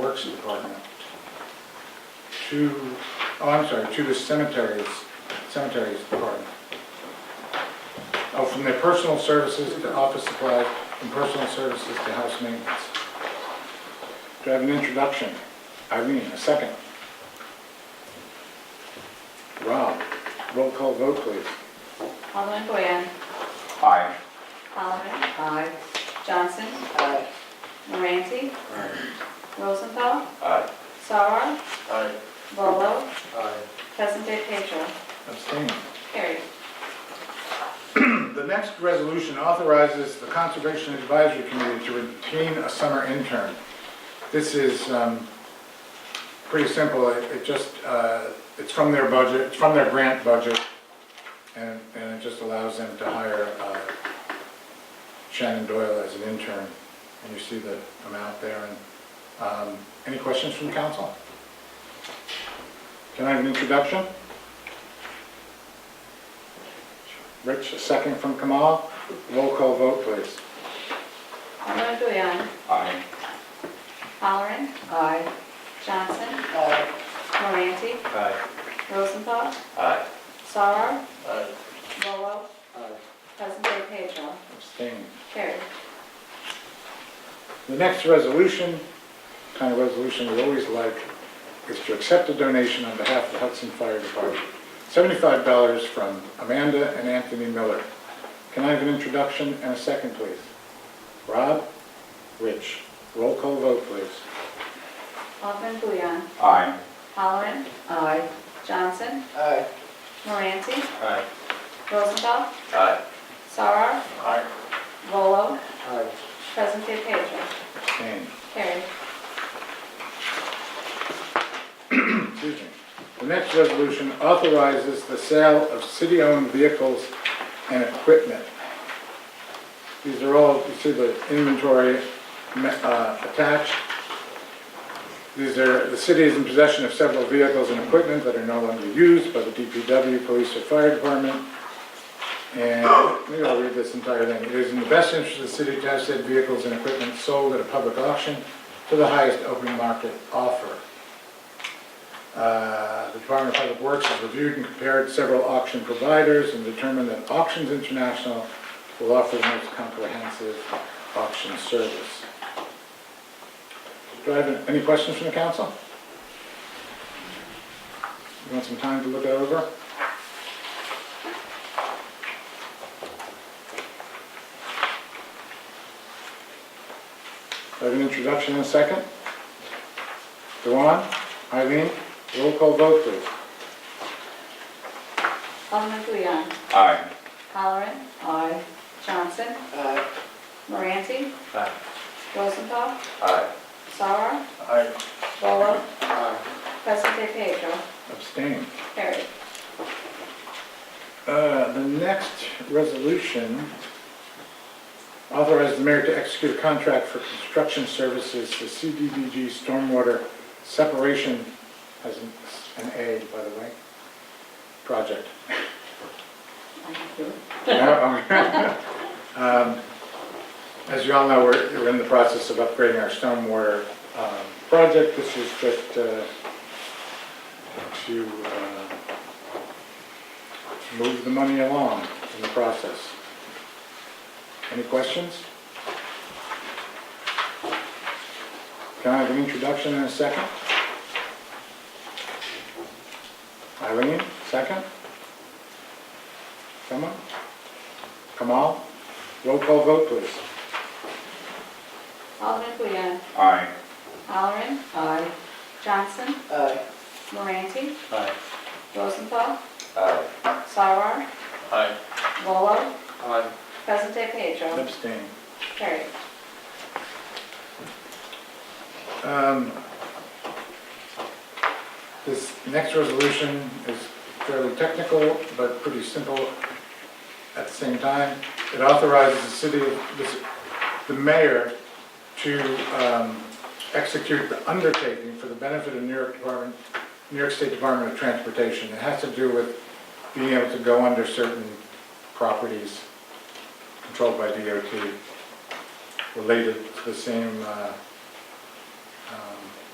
Parks Department to, oh, I'm sorry, to the cemeteries, cemeteries department. Oh, from the personal services to office supplies and personal services to house maintenance. Do I have an introduction? Irene, a second. Rob, roll call vote, please. Alderman Boyan. Aye. Halleran. Aye. Johnson. Aye. Moranti. Rosenthal. Aye. Sauer. Aye. Volo. Aye. Present day Pedro. Abstain. Carried. The next resolution authorizes the Conservation Advisory Committee to retain a summer intern. This is um, pretty simple, It- it just, uh, it's from their budget, it's from their grant budget, and and it just allows them to hire uh, Shannon Doyle as an intern, and you see the amount there. And um, Any questions from council? Can I have an introduction? Rich, a second from Kamal. Roll call vote, please. Alderman Boyan. Aye. Halleran. Aye. Johnson. Aye. Moranti. Aye. Rosenthal. Aye. Sauer. Aye. Volo. Present day Pedro. Abstain. Carried. The next resolution, kind of resolution we always like, is to accept a donation on behalf of the Hudson Fire Department. Seventy-five dollars from Amanda and Anthony Miller. Can I have an introduction and a second, please? Rob? Rich? Roll call vote, please. Alderman Boyan. Aye. Halleran. Aye. Johnson. Aye. Moranti. Aye. Rosenthal. Aye. Sauer. Aye. Volo. Aye. Present day Pedro. Abstain. Carried. Excuse me. The next resolution authorizes the sale of city-owned vehicles and equipment. These are all, you see the inventory me- uh, attached. These are, the city is in possession of several vehicles and equipment that are no longer used by the DPW, police, or fire department. And maybe I'll read this entire thing. It is in the best interest of the city to have said vehicles and equipment sold at a public auction to the highest open market offer. Uh, The Department of Public Works has reviewed and compared several auction providers and determined that Auctions International will offer the most comprehensive auction service. Do I have any questions from the council? You want some time to look it over? Do I have an introduction in a second? Dewan, Eileen, roll call vote, please. Alderman Boyan. Aye. Halleran. Aye. Johnson. Aye. Moranti. Aye. Rosenthal. Aye. Sauer. Aye. Volo. Present day Pedro. Abstain. Carried. Uh, The next resolution authorizes the mayor to execute a contract for construction services to CDBG Stormwater Separation, as an an A, by the way, project. I can do it. Um, As you all know, we're we're in the process of upgrading our stormwater um, project. This is just uh, to uh, move the money along in the process. Any questions? Can I have an introduction and a second? Eileen, second? Someone? Kamal? Roll call vote, please. Alderman Boyan. Aye. Halleran. Aye. Johnson. Aye. Moranti. Aye. Rosenthal. Aye. Sauer. Aye. Volo. Aye. Present day Pedro. Abstain. Carried. Um, This next resolution is fairly technical, but pretty simple at the same time. It authorizes the city, the- the mayor to um, execute the undertaking for the benefit of New York Department, New York State Department of Transportation. It has to do with being able to go under certain properties controlled by DOT related to the same uh, um,